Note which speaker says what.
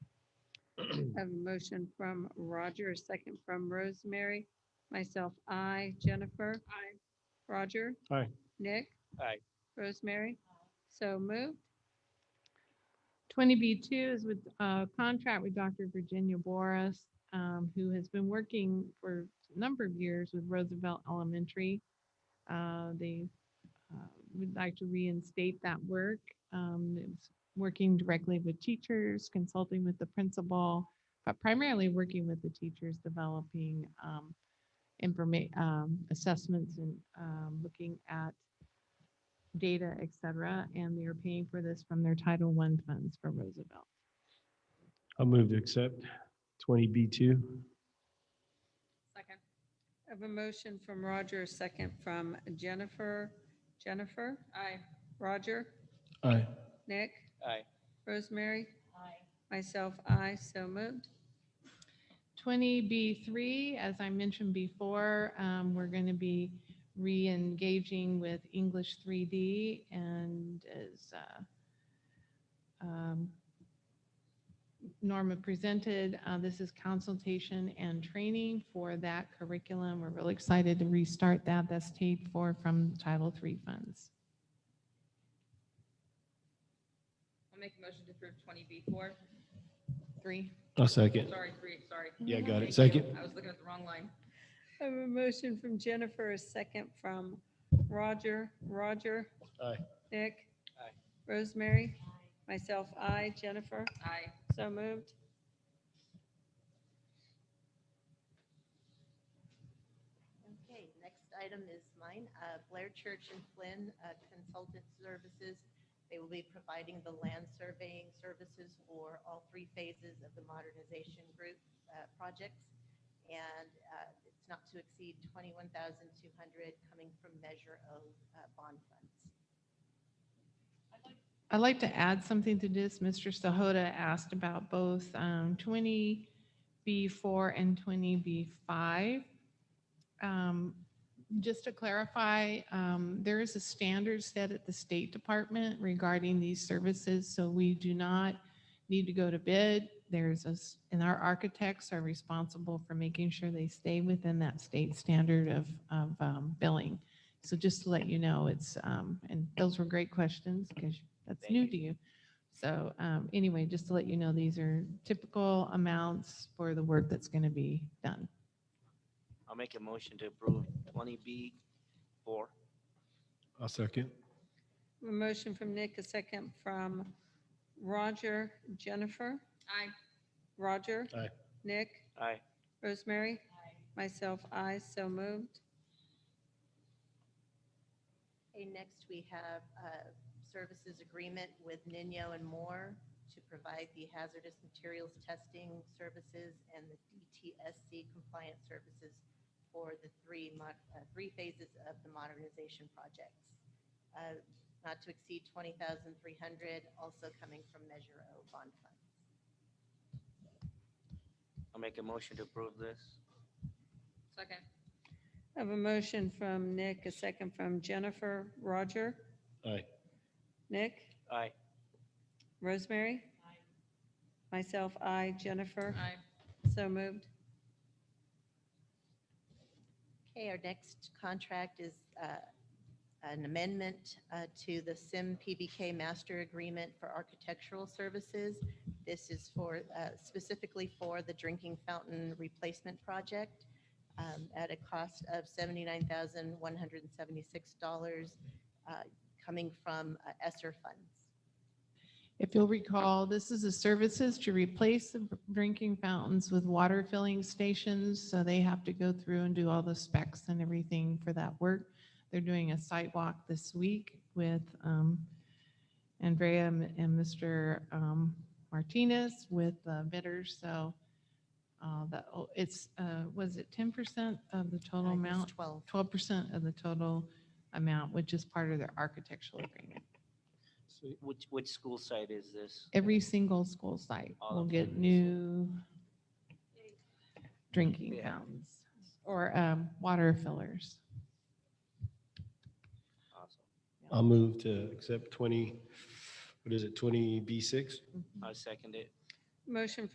Speaker 1: I have a motion from Roger, a second from Rosemary. Myself, I, Jennifer. Aye. Roger.
Speaker 2: Aye.
Speaker 1: Nick.
Speaker 3: Aye.
Speaker 1: Rosemary. So moved.
Speaker 4: Twenty B two is with a contract with Dr. Virginia Boris, um, who has been working for a number of years with Roosevelt Elementary. Uh, They uh, would like to reinstate that work. Um, It's working directly with teachers, consulting with the principal, but primarily working with the teachers, developing information, assessments and um, looking at data, et cetera, and they're paying for this from their Title I funds for Roosevelt.
Speaker 2: I'll move to accept twenty B two.
Speaker 1: Second. I have a motion from Roger, a second from Jennifer. Jennifer. Aye. Roger.
Speaker 2: Aye.
Speaker 1: Nick.
Speaker 3: Aye.
Speaker 1: Rosemary. Aye. Myself, I. So moved.
Speaker 4: Twenty B three, as I mentioned before, um, we're going to be re-engaging with English three D and as uh, um, Norma presented, uh, this is consultation and training for that curriculum. We're really excited to restart that. That's paid for from Title III funds.
Speaker 5: I'll make a motion to approve twenty B four.
Speaker 4: Three.
Speaker 2: I'll second.
Speaker 5: Sorry, three, sorry.
Speaker 2: Yeah, got it.
Speaker 5: Thank you.
Speaker 2: Second.
Speaker 5: I was looking at the wrong line.
Speaker 1: I have a motion from Jennifer, a second from Roger. Roger.
Speaker 2: Aye.
Speaker 1: Nick.
Speaker 3: Aye.
Speaker 1: Rosemary. Myself, I. Jennifer.
Speaker 5: Aye.
Speaker 1: So moved.
Speaker 6: Okay, next item is mine. Uh, Blair Church and Flynn uh, Consultant Services. They will be providing the land surveying services for all three phases of the modernization group uh, projects. And uh, it's not to exceed 21,200 coming from Measure O uh, bond funds.
Speaker 4: I'd like to add something to this. Mr. Sahota asked about both um, 20B4 and 20B5. Um, Just to clarify, um, there is a standard set at the State Department regarding these services, so we do not need to go to bid. There's a, s- and our architects are responsible for making sure they stay within that state standard of, of um, billing. So just to let you know, it's, um, and those were great questions because that's
Speaker 3: Thank
Speaker 4: new
Speaker 3: you.
Speaker 4: to you. So, um, anyway, just to let you know, these are typical amounts for the work that's going to be done.
Speaker 3: I'll make a motion to approve twenty B four.
Speaker 2: I'll second.
Speaker 1: A motion from Nick, a second from Roger. Jennifer.
Speaker 5: Aye.
Speaker 1: Roger.
Speaker 2: Aye.
Speaker 1: Nick.
Speaker 3: Aye.
Speaker 1: Rosemary. Myself, I. So moved.
Speaker 6: Okay, next we have a services agreement with Nino and Moore to provide the hazardous materials testing services and the DTSC compliant services for the three, mo- uh, three phases of the modernization projects. Uh, Not to exceed 20,300, also coming from Measure O bond fund.
Speaker 3: I'll make a motion to approve this.
Speaker 5: Second.
Speaker 1: I have a motion from Nick, a second from Jennifer. Roger.
Speaker 2: Aye.
Speaker 1: Nick.
Speaker 3: Aye.
Speaker 1: Rosemary. Myself, I. Jennifer.
Speaker 5: Aye.
Speaker 1: So moved.
Speaker 6: Okay, our next contract is uh, an amendment uh, to the SIM PBK Master Agreement for Architectural Services. This is for, uh, specifically for the drinking fountain replacement project um, at a cost of $79,176 uh, coming from uh, ESSER funds.
Speaker 4: If you'll recall, this is the services to replace the drinking fountains with water filling stations. So they have to go through and do all the specs and everything for that work. They're doing a site walk this week with um, Andrea and and Mr. um, Martinez with uh, bidders. So uh, that, oh, it's, uh, was it 10% of the
Speaker 6: Uh,
Speaker 4: total
Speaker 6: it's
Speaker 4: amount?
Speaker 6: 12.
Speaker 4: twelve percent of the total amount, which is part of their architectural agreement.
Speaker 3: Which, which school site is this?
Speaker 4: Every single school site
Speaker 3: All
Speaker 4: will
Speaker 3: of
Speaker 4: get
Speaker 3: them.
Speaker 4: new drinking
Speaker 3: Yeah.
Speaker 4: fountains or um, water fillers.
Speaker 3: Awesome.
Speaker 2: I'll move to accept twenty, what is it, twenty B six?
Speaker 3: I second it.
Speaker 1: Motion